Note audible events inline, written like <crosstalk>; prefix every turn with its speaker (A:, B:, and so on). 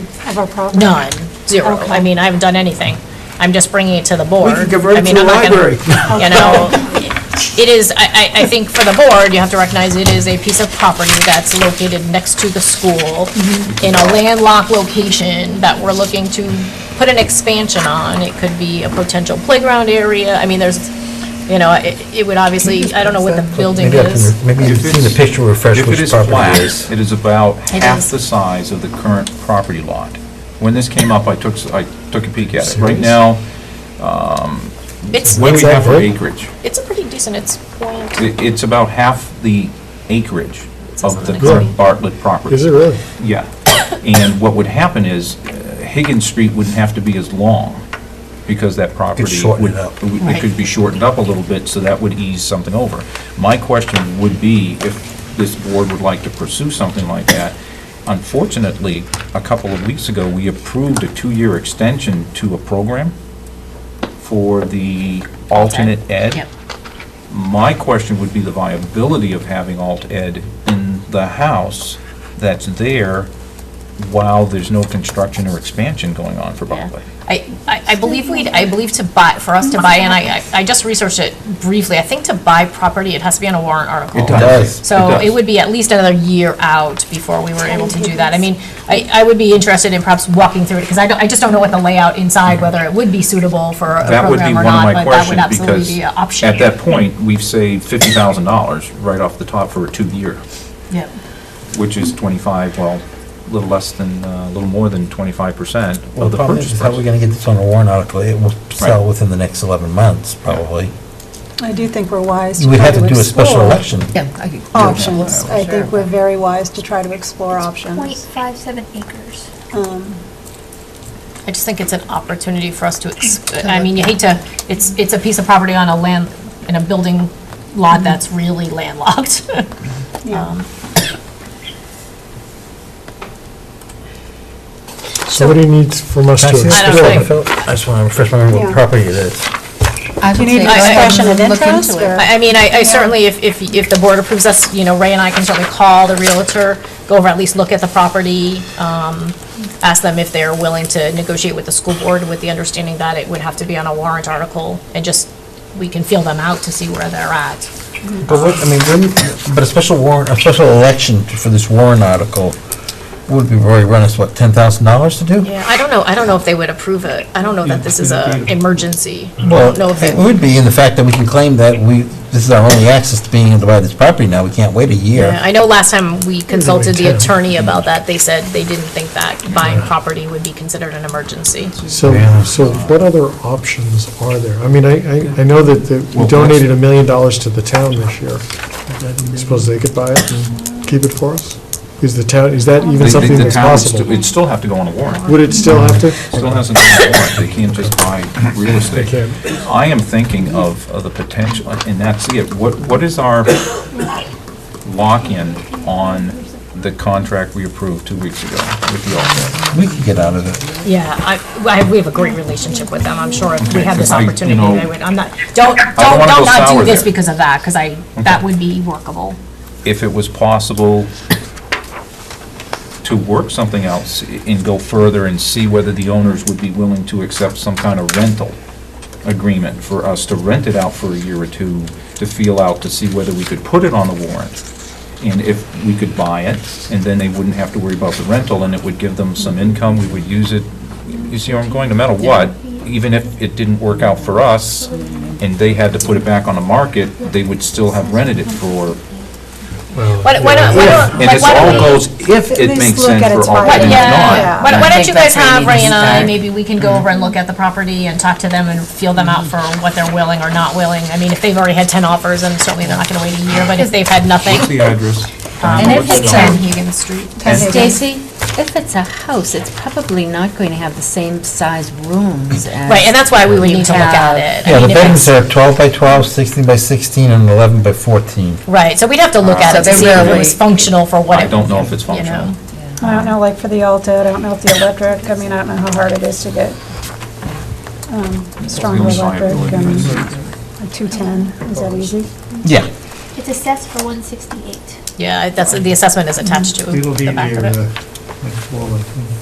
A: of our property?
B: None, zero.
A: Okay.
B: I mean, I haven't done anything. I'm just bringing it to the board.
C: convert it
B: I mean,
C: to a
B: I'm not gonna-
C: library.
B: You know, it is, I, I, I think for the board, you have to recognize it is a piece of property that's located next to the school in a landlocked location that we're looking to put an expansion on. It could be a potential playground area. I mean, there's, you know, it, it would obviously, I don't know what the building
D: Maybe I
B: is.
D: can, maybe you've
E: If
D: seen the
E: it's-
D: picture, refresh
E: If it
D: which
E: is
D: property
E: flat,
D: it is.
E: it is about
B: It
E: half
B: is.
E: the size of the current property lot. When this came up, I took, s- I took a peek at it. Right now,
B: It's,
E: what do we
B: it's,
E: have for
D: Exactly.
E: acreage?
B: it's a pretty decent, it's point,
E: I- It's about half the acreage
B: says on
E: of the
B: the
E: current
B: next
E: Bartlett property.
D: Is it really?
E: Yeah. And what would happen is uh, Higgins Street wouldn't have to be as long because that property.
D: shorten
E: would-
D: it up.
E: It could be shortened up a little bit, so that would ease something over. My question would be if this board would like to pursue something like that. Unfortunately, a couple of weeks ago, we approved a two-year extension to a program for the alternate ed.
F: Yep.
E: My question would be the viability of having alt ed in the house that's there while there's no construction or expansion going on for Bartlett.
B: I, I I believe we, I believe to buy, for us to buy, and I, I- I just researched it briefly, I think to buy property, it has to be on a warrant article.
D: does.
B: So
E: does.
B: it would be at least another year out before we were able to do that. I mean, I, I would be interested in perhaps walking through it, because I don't, I just don't know what the layout inside, whether it would be suitable for a
E: That would be
B: program or
E: one of
B: not,
E: my
B: but that would
E: questions
B: absolutely
E: because
B: be an option.
E: at that point, we've saved fifty thousand dollars right off the top for a two-year,
B: Yep.
E: which is twenty-five, well, a little less than, uh, a little more than twenty-five percent
D: Well,
E: of
D: the
E: the
D: problem is,
E: purchase
D: how are we
E: price.
D: gonna get this on a warrant article? It will sell
E: Right.
D: within the next 11 months, probably.
A: I do think we're wise to
D: We'd
A: try
D: have
A: to
D: to do a special
A: explore
D: election.
F: Yeah, I could-
A: options.
F: Yeah,
A: Oh, I
F: Oh, sure.
A: think we're very wise to try to explore options.
G: .57 acres.
A: Um,
B: I just think it's an opportunity for us to, ex- I mean, you hate to, it's, it's a piece of property on a land, in a building lot that's really landlocked. <laughs>
A: Yeah.
H: So what do you need from us
D: Can I see
H: to
D: the
B: I don't
D: picture?
B: think-
D: Phil, I just wanna refresh my memory
A: Yeah.
D: what property it is.
F: I
A: Do you
F: would
A: need
F: say go ahead
A: expression of
F: and look into
A: interest,
F: it.
A: or-
B: I I mean, I I certainly, if, if if the board approves us, you know, Ray and I can certainly call the Realtor, go over, at least look at the property, um, ask them if they're willing to negotiate with the school board with the understanding that it would have to be on a warrant article, and just, we can feel them out to see where they're at.
D: But what, I mean, wouldn't, but a special warrant, a special election for this warrant article would be very run us, what, $10,000 to do?
B: I don't know, I don't know if they would approve it. I don't know that this is a emergency. I
D: Well,
B: don't know if
D: it
B: they,
D: would be in the fact that we can claim that we, this is our only access to being able to buy this property now, we can't wait a
B: Yeah,
D: year.
B: I know last time we consulted the
H: too.
B: attorney about that, they said they didn't think that buying property would be considered an emergency.
H: So, so what other options are there? I mean, I, I, I know that, that we
E: Well,
H: donated a million dollars to the town this year. Suppose they could buy it and keep it for us? Is the town, is that
E: The-
H: even
E: the-
H: something
E: the
H: that's
E: town would stu-
H: possible?
E: It'd still have to go on a warrant.
H: Would it still have to?
E: Still hasn't done a warrant, they can't just buy real estate. I am thinking of, of the potential, and that's it, what, what is our lock-in on the contract we approved two weeks ago with the Alta?
D: We could get out of it.
B: Yeah, I, I- we have a great relationship with them, I'm sure if we had this
E: Okay, 'cause I,
B: opportunity,
E: you know,
B: they would, I'm not, don't, don't,
E: don't
B: don't
E: wanna go
B: not
E: sour
B: do this
E: there.
B: because of that, because I, that would be workable.
E: If it was possible to work something else and go further and see whether the owners would be willing to accept some kind of rental agreement for us to rent it out for a year or two to feel out, to see whether we could put it on the warrant. And if we could buy it, and then they wouldn't have to worry about the rental, and it would give them some income, we would use it. You see where I'm going, no matter what, even if it didn't work out for us, and they had to put it back on the market, they would still have rented it for,
B: Why don't, why don't, why don't,
E: and
B: like,
E: this
B: why
E: all
B: don't we?
E: goes if
A: At
E: it
A: least
E: makes
A: look
E: sense
A: at its
E: for all
A: value.
E: and it's
B: Yeah,
E: not.
B: why, why
F: I
B: don't
F: think
B: you guys
F: that's where
B: have
F: we need
B: Ray
F: to
B: and I,
F: start.
B: maybe we can go over and look at the property and talk to them and feel them out for what they're willing or not willing. I mean, if they've already had ten offers, then certainly they're not gonna wait a year, but if they've had nothing.
E: What's the address? um,
F: And if it's
B: Ten
F: a,
B: Higgins Street.
F: Stacy, if it's a house, it's probably not going to have the same size <laughs> rooms as.
B: Right, and that's why we would need to look at
F: have-
B: it. I
D: Yeah, the
B: mean, if
D: bedrooms
B: it's-
D: are 12 by 12, 16 by 16, and 11 by 14.
B: Right, so we'd have to
E: Uh,
B: look at
F: So
B: it to
F: they're
B: see if it
F: really-
B: was functional for what
E: I
B: it.
E: don't know if it's
B: you know.
E: functional.
A: I don't know, like for the Alta, I don't know if the electric, I mean, I don't know how hard it is to get um, stronger
E: only
A: electric,
E: liability
A: um,
E: is-
A: like 210, is that easy?
D: Yeah.
G: It's assessed for 168.
B: Yeah, that's, the assessment is attached to
H: It'll be uh,
B: the back of it.
H: near, uh, like, Walnut.